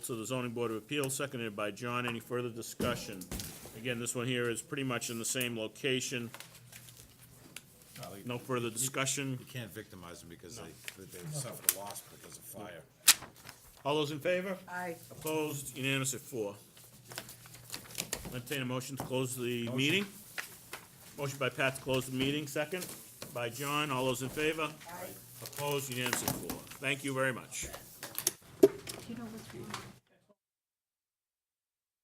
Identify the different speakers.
Speaker 1: So the zoning board of appeals, seconded by John. Any further discussion? Again, this one here is pretty much in the same location. No further discussion.
Speaker 2: You can't victimize them because they, they've suffered a loss because of fire.
Speaker 1: All those in favor?
Speaker 3: Aye.
Speaker 1: Opposed? Unanimous at four. Entertain a motion to close the meeting. Motion by Pat to close the meeting, second by John. All those in favor? Aye. Opposed? Unanimous at four. Thank you very much.
Speaker 3: Do you know what's wrong?